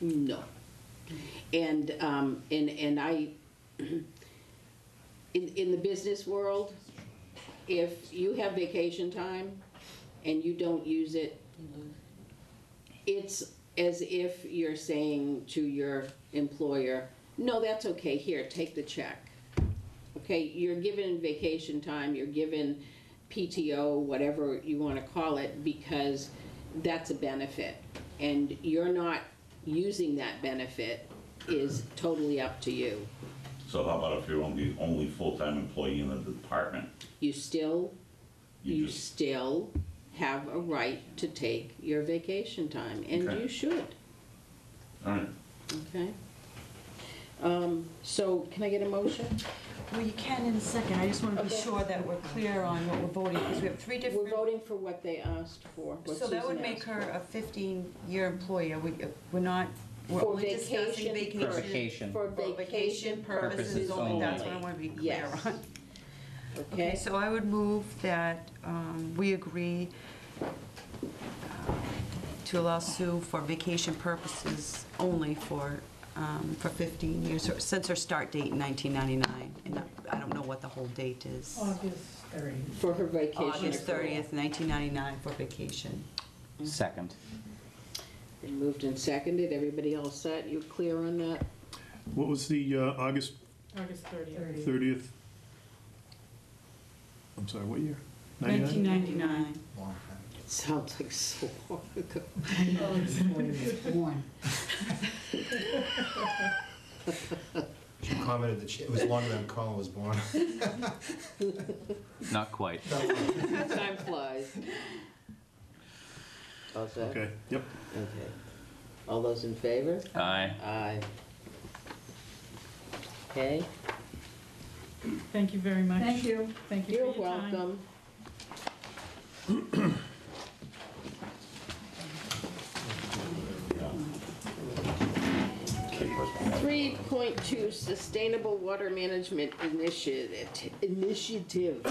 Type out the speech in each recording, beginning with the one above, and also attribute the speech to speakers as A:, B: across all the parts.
A: No. And, um, and, and I, in, in the business world, if you have vacation time and you don't use it, it's as if you're saying to your employer, no, that's okay, here, take the check. Okay, you're given vacation time, you're given PTO, whatever you want to call it, because that's a benefit. And you're not using that benefit is totally up to you.
B: So how about if you're only, only full-time employee in the department?
A: You still,
B: You
A: you
B: just,
A: still have a right to take your vacation time, and
B: Okay.
A: you should,
B: all right,
A: okay? Um, So can I get a motion?
C: Well, you can in a second, I just want to be
A: Okay.
C: sure that we're clear on what we're voting, because we have three
A: We're
C: different.
A: voting for what they asked for, what
C: So that would
A: Susan
C: make
A: asked
C: her
A: for.
C: a 15-year employee, Are we, we're not, we're
A: For
C: only discussing
A: vacation
C: vacation.
A: purpose.
D: Vacation.
A: For
C: For
A: vacation purposes only.
C: That's what I want to be clear
A: Yes.
C: on. Okay,
A: Okay,
C: so I would move that um, we agree uh, to allow Sue for vacation purposes only for, um, for 15 years, or- since her start date in 1999. And I- I don't know what the whole date is.
E: August 30.
A: for her vacation
C: August
A: accrual.
C: 30th, 1999 for vacation.
D: Second.
A: Been moved and seconded, everybody all set, you clear on that?
F: What was the uh, August
E: August 30th.
F: 30th? I'm sorry, what year? 99?
C: 1999.
A: Sounds like so long ago.
G: She commented that she, it was longer than Colin was born.
D: Not quite.
A: Time flies. All set?
F: Okay, yep.
A: Okay. All those in favor?
D: Aye.
A: Aye. Okay,
E: Thank you very much.
H: Thank you.
E: Thank you
A: you're
E: for your time.
A: welcome. Three point two, Sustainable Water Management Initiative, Initiative.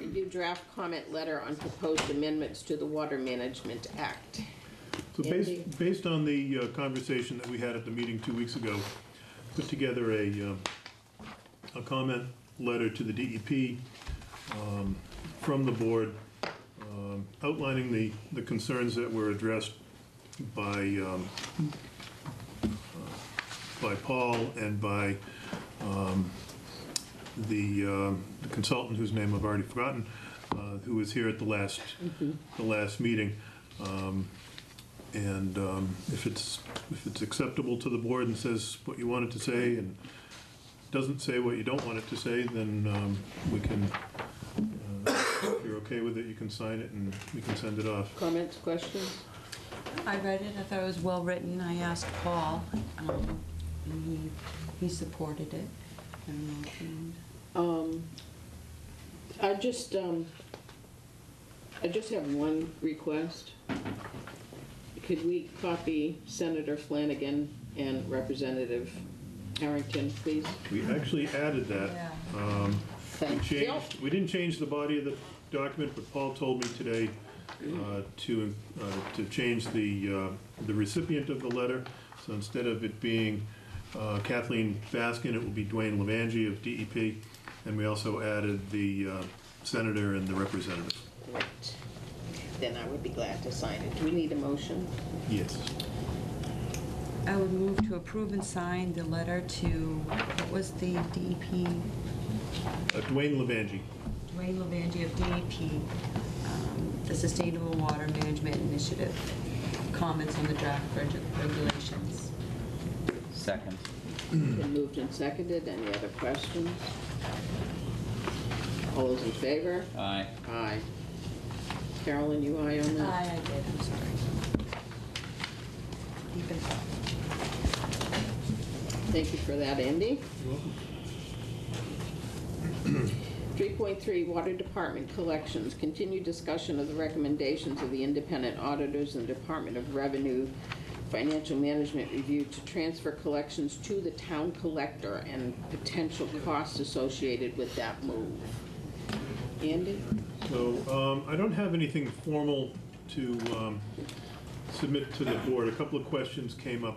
A: Review draft comment letter on proposed amendments to the Water Management Act.
F: So
A: Andy?
F: based, based on the uh, conversation that we had at the meeting two weeks ago, put together a, um, a comment letter to the DEP um, from the board um, outlining the, the concerns that were addressed by, um, uh, by Paul and by um, the um, the consultant whose name I've already forgotten, uh, who was here at the last, the last meeting. Um, and um, if it's, if it's acceptable to the board and says what you want it to say and doesn't say what you don't want it to say, then um, we can, uh, if you're okay with it, you can sign it and we can send it off.
A: Comments, questions?
C: I read it, I thought it was well-written, I asked Paul, um, and he, he supported it. I don't know if you-
A: Um, I just, um, I just have one request. Could we copy Senator Flanagan and Representative Harrington, please?
F: We actually added that.
C: Yeah.
F: Um, We
A: Thank you.
F: changed, we didn't change the body of the document, but Paul told me today uh, to, uh, to change the, uh, the recipient of the letter. So instead of it being uh, Kathleen Baskin, it will be Dwayne Levangie of DEP. And we also added the uh, senator and the representative.
A: Great. Then I would be glad to sign it. Do we need a motion?
F: Yes.
C: I would move to approve and sign the letter to, what was the E DEP,
F: Uh, Dwayne Levangie.
C: Dwayne Levangie of DEP, um, the Sustainable Water Management Initiative, comments on the draft reg- regulations.
D: Second.
A: Been moved and seconded. Any other questions? All those in favor?
D: Aye.
A: Aye. Carolyn, you aye on that?
C: I did, I'm sorry. Even-
A: Thank you for that, Andy. Three point three, Water Department Collections, continued discussion of the recommendations of the independent auditors and Department of Revenue Financial Management Review to transfer collections to the town collector and potential costs associated with that move. Andy?
F: So um, I don't have anything formal to um, submit to the board. A couple of questions came up